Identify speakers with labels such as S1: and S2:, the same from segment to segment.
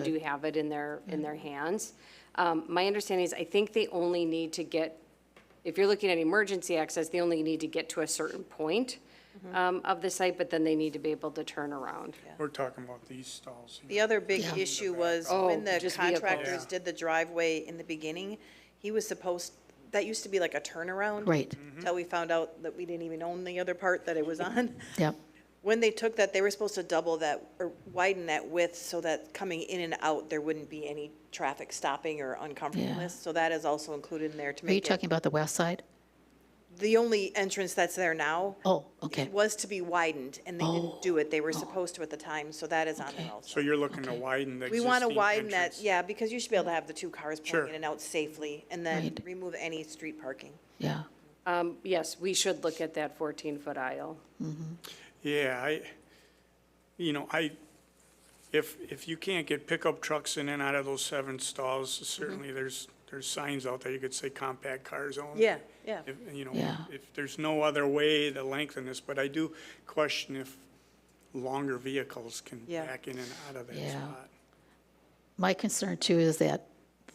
S1: do have it in their,
S2: Mm-hmm.
S1: in their hands. Um, My understanding is, I think they only need to get, if you're looking at emergency access, they only need to get to a certain point
S2: Mm-hmm.
S1: um, of the site, but then they need to be able to turn around.
S3: We're talking about these stalls.
S4: The other big issue was
S1: Oh,
S4: when the
S1: just vehicles.
S4: contractors
S3: Yeah.
S4: did the driveway in the beginning, he was supposed, that used to be like a turnaround.
S2: Right.
S3: Mm-hmm.
S4: Till we found out that we didn't even own the other part that it was on.
S2: Yep,
S4: When they took that, they were supposed to double that or widen that width so that coming in and out, there wouldn't be any traffic stopping or uncomfortableness. So that is also included in there to
S2: are you
S4: make it.
S2: talking about the west side?
S4: The only entrance that's there now
S2: Oh, okay, Oh.
S4: was to be widened and they didn't do it. They were supposed to at the time, so that is on
S2: Okay.
S4: there also.
S3: So you're looking to widen the
S4: We
S3: existing
S4: want to widen that,
S3: entrance.
S4: yeah, because you should be able to have the two cars
S3: Sure.
S4: pulling in and out safely, and then
S2: Right.
S4: remove any street parking.
S2: yeah.
S1: Um, Yes, we should look at that 14-foot aisle.
S3: Yeah, I, you know, I, if, if you can't get pickup trucks in and out of those seven stalls,
S4: Mm-hmm.
S3: certainly there's, there's signs out there, you could say compact cars only.
S4: Yeah, yeah.
S3: If, you know,
S2: Yeah.
S3: if there's no other way to lengthen this, but I do question if longer vehicles can
S4: Yeah.
S3: back in and out of that
S2: Yeah.
S3: spot.
S2: My concern too is that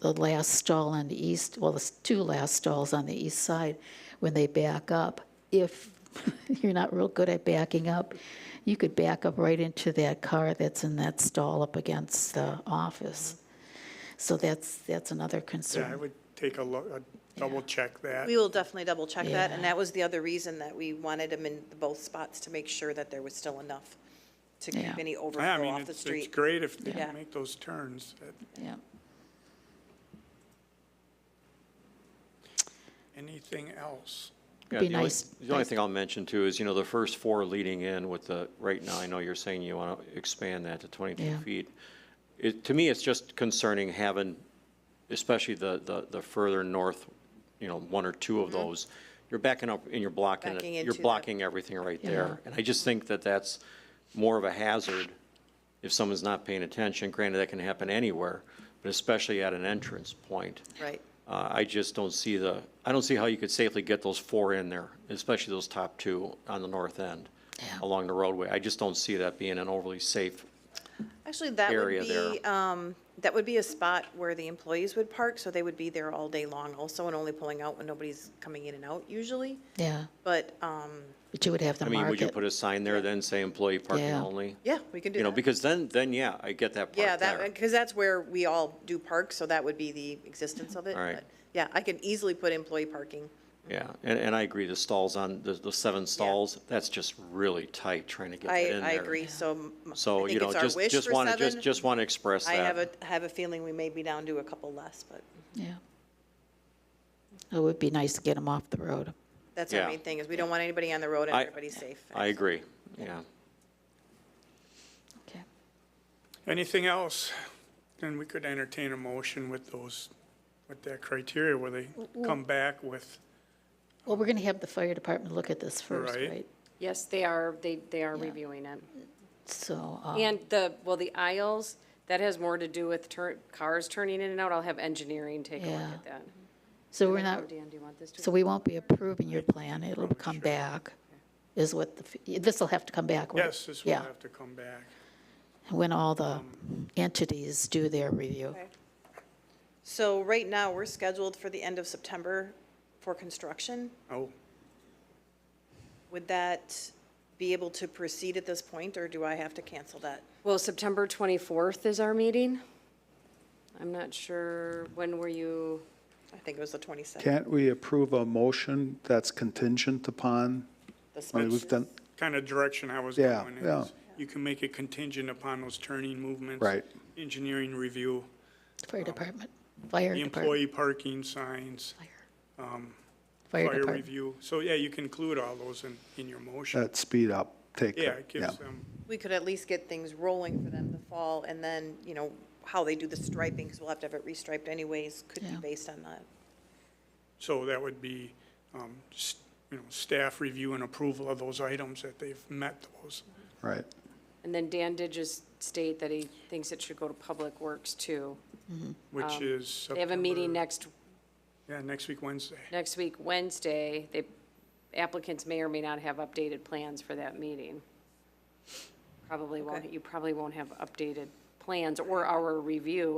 S2: the last stall on the east, well, the s- two last stalls on the east side, when they back up, if you're not real good at backing up, you could back up right into that car that's in that stall up against the office. So that's, that's another
S3: Yeah, I
S2: concern.
S3: would take a look, a double check that.
S4: We will definitely double check that, and
S2: Yeah.
S4: that was the other reason that we wanted them in both spots, to make sure that there was still enough to
S2: Yeah.
S4: keep any
S3: Yeah, I
S4: overflow
S3: mean,
S4: off
S3: it's,
S4: the
S3: it's
S4: street.
S3: great if they
S4: Yeah.
S3: can make those turns. That-
S2: Yeah.
S3: Anything else?
S2: It'd
S5: Yeah,
S2: be
S5: the only-
S2: nice-
S5: The only
S2: nice-
S5: thing I'll mention too is, you know, the first four leading in with the, right now, I know you're saying you want to expand that to 22
S2: Yeah.
S5: feet. It, to me, it's just concerning having, especially the, the, the further north, you know, one or two
S2: Mm-hmm.
S5: of those, you're backing up and you're blocking, it-
S4: Backing into
S5: you're
S4: the-
S5: blocking everything right there. And I just think that that's more of a hazard if someone's not paying attention. Granted, that can happen anywhere, but especially at an entrance point.
S4: Right.
S5: Uh, I just don't see the, I don't see how you could safely get those four in there, especially those top two on the north end
S2: Yeah.
S5: along the roadway. I just don't see that being an overly safe.
S4: Actually, that would
S5: Area
S4: be,
S5: there.
S4: um, that would be a spot where the employees would park, so they would be there all day long also, and only pulling out when nobody's coming in and out usually.
S2: Yeah,
S4: But, um,
S2: but you would have the
S5: I mean, would you put
S2: market.
S5: a sign there then, say employee parking
S2: Yeah.
S5: only?
S4: yeah, we can do that.
S5: You know, because then, then, yeah, I get that
S4: Yeah,
S5: part
S4: that,
S5: there.
S4: because that's where we all do park, so that would be the existence of it.
S5: All right.
S4: but Yeah, I could easily put employee parking.
S5: Yeah, and, and I agree, the stalls on, the, the seven stalls, that's just really tight trying to get
S4: I,
S5: that in there.
S4: I agree, so m- I
S5: So, you
S4: think
S5: know,
S4: it's our
S5: just,
S4: wish
S5: just
S4: for
S5: want to, just,
S4: seven.
S5: just want to express
S4: I
S5: that.
S4: have a, have a feeling we may be down to a couple less, but
S2: Yeah. It would be nice to get them off the road.
S4: that's our
S5: Yeah.
S4: main thing, is we don't want anybody on the road and
S5: I-
S4: everybody's safe.
S5: I agree, yeah.
S2: Okay.
S3: Anything else? Then we could entertain a motion with those, with that criteria where they come back with,
S2: Well, we're going to have the fire department look at this first,
S3: Right.
S2: right?
S1: Yes, they are, they, they are
S2: Yeah.
S1: reviewing it.
S2: So, uh,
S1: And the, well, the aisles, that has more to do with tur- cars turning in and out. I'll have engineering take a look
S2: Yeah.
S1: at that. Oh,
S2: so we're not,
S1: Dan, do you want this to?
S2: so we won't be approving your plan, it'll come back, is what, the this'll have to come back, right?
S3: yes, this will
S2: Yeah,
S3: have to come back.
S2: when all the entities do their review.
S4: So right now, we're scheduled for the end of September for construction.
S3: Oh,
S4: Would that be able to proceed at this point, or do I have to cancel that?
S1: Well, September 24th is our meeting. I'm not sure, when were you,
S4: I think it was the 27th.
S6: Can't we approve a motion that's contingent upon?
S4: this
S6: I mean,
S4: month.
S6: we've done,
S3: kind of direction I was
S6: Yeah,
S3: going
S6: yeah.
S3: is you can make it contingent upon those turning movements.
S6: Right.
S3: Engineering review,
S2: Fire department, fire
S3: Um, the
S2: department.
S3: employee parking signs,
S2: Fire
S3: fire
S2: department,
S3: review. So, yeah, you can include all those in, in your motion.
S6: that speed up, take.
S3: Yeah, it gives them,
S4: we could at least get things rolling for them the fall, and then, you know, how they do the striping, because we'll have to have it restriped anyways, could be
S2: Yeah.
S4: based on that.
S3: so that would be, um, s- you know, staff review and approval of those items that they've met those.
S6: Right.
S1: and then Dan did just state that he thinks it should go to Public Works too.
S3: which is September.
S1: Um, They have a meeting next,
S3: Yeah, next week, Wednesday.
S1: next week, Wednesday. They, applicants may or may not have updated plans for that meeting. Probably won't,
S4: Okay.
S1: you probably won't have updated plans or our review